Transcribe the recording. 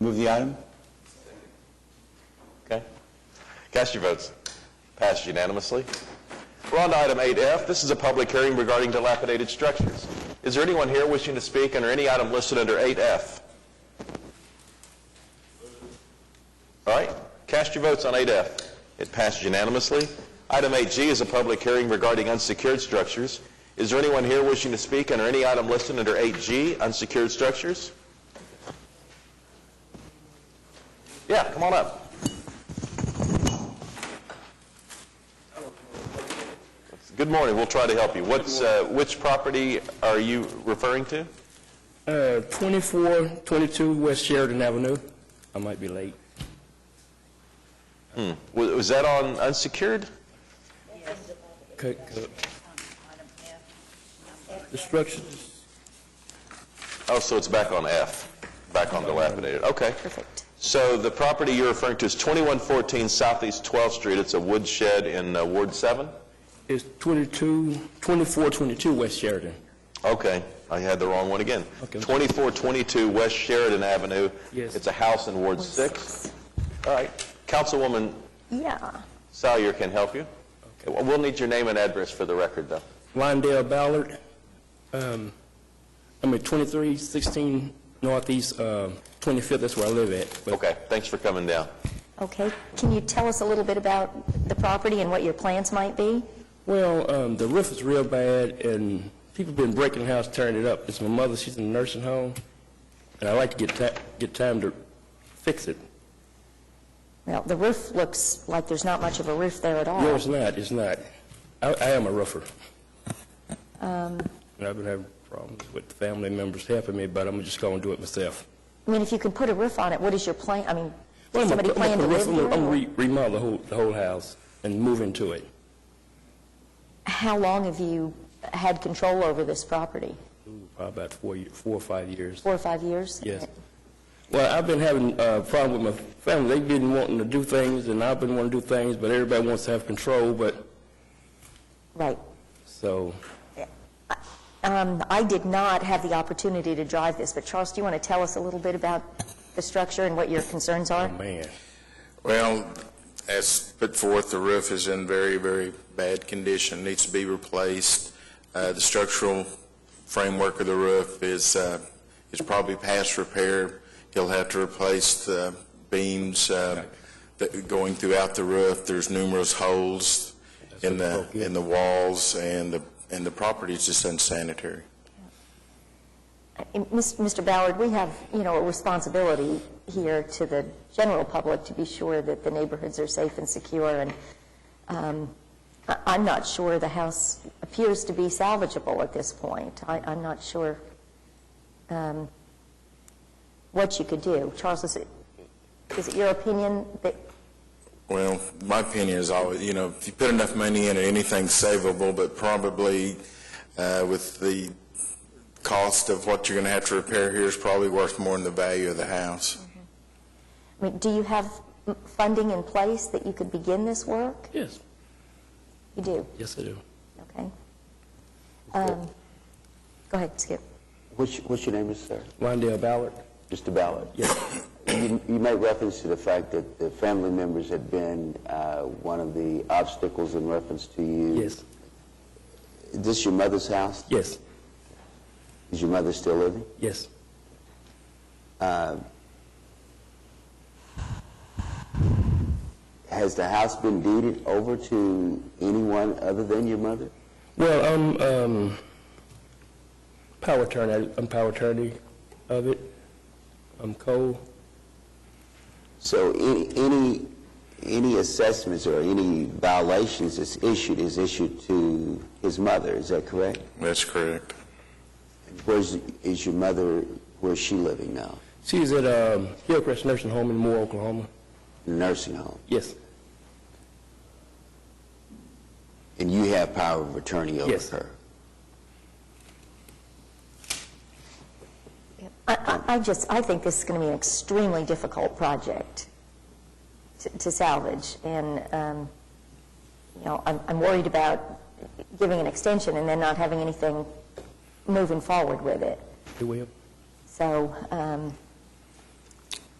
Move the item? Okay. Cast your votes. Passed unanimously. We're on to item 8F. This is a public hearing regarding dilapidated structures. Is there anyone here wishing to speak under any item listed under 8F? All right. Cast your votes on 8F. It passed unanimously. Item 8G is a public hearing regarding unsecured structures. Is there anyone here wishing to speak under any item listed under 8G, unsecured structures? Yeah, come on up. Good morning, we'll try to help you. What's, uh, which property are you referring to? Uh, 2422 West Sheridan Avenue. I might be late. Wa- Was that on unsecured? Cook, cook. The structures, Oh, so it's back on F, back on dilapidated, okay. Perfect. So the property you're referring to is 2114 Southeast 12th Street, it's a woodshed in uh, Ward 7? is 22, 2422 West Sheridan. Okay, I had the wrong one again. Okay. 2422 West Sheridan Avenue. Yes. It's a house in Ward 6. All right, Councilwoman Yeah. Salyer can help you. We'll we'll need your name and address for the record, though. Lindale Ballard, um, I mean, 2316 Northeast uh, 25th, that's where I live at. But Okay, thanks for coming down. Okay. Can you tell us a little bit about the property and what your plans might be? Well, um, the roof is real bad, and people been breaking the house, tearing it up. It's my mother, she's in a nursing home, and I like to get ta, get time to fix it. Well, the roof looks like there's not much of a roof there at all. No, it's not, it's not. I, I am a roofer. And I've been having problems with family members helping me, but I'm just gonna do it myself. I mean, if you can put a roof on it, what is your plan, I mean, Well, does I'm a- somebody I'm a plan to live roofer. I'm here? gonna- I'm gonna or- re- remodel the whole, the whole house and move into it. How long have you had control over this property? Ooh, Probably about four, ye- four or five years. Four or five years? Yes. Well, I've been having a problem with my family. They've been wanting to do things, and I've been wanting to do things, but everybody wants to have control, but, Right. so, Um, I did not have the opportunity to drive this, but Charles, do you want to tell us a little bit about the structure and what your concerns are? man. Well, as put forth, the roof is in very, very bad condition, needs to be replaced. Uh, The structural framework of the roof is, uh, is probably past repair. He'll have to replace the beams uh, that going throughout the roof. There's numerous holes in the, in the walls, and the, and the property is just unsanitary. And Mis- Mr. Ballard, we have, you know, a responsibility here to the general public to be sure that the neighborhoods are safe and secure, and um, I- I'm not sure the house appears to be salvageable at this point. I- I'm not sure um, what you could do. Charles, is it, is it your opinion that, Well, my opinion is always, you know, if you put enough money in it, anything's savable, but probably uh, with the cost of what you're going to have to repair here is probably worth more than the value of the house. I mean, do you have m- funding in place that you could begin this work? Yes, You do, yes, I do. okay? Um, Go ahead, Skip. What's, what's your name, Mr. Sarah? Lindale Ballard? Mr. Ballard? Yes. You you made reference to the fact that the family members had been uh, one of the obstacles in reference to you. Yes, Is this your mother's house? yes, Is your mother still living? yes. Has the house been deeded over to anyone other than your mother? Well, I'm um, power attorney, I'm power attorney of it. I'm Cole. So any, any, any assessments or any violations that's issued is issued to his mother, is that correct? That's correct. Where's, is your mother, where's she living now? She's at um, Hillcrest Nursing Home in Moore, Oklahoma. Nursing home? Yes, And you have power of attorney over Yes. her? I, I I just, I think this is going to be an extremely difficult project to- to salvage, and, um, you know, I'm I'm worried about giving an extension and then not having anything moving forward with it. you will. So, um,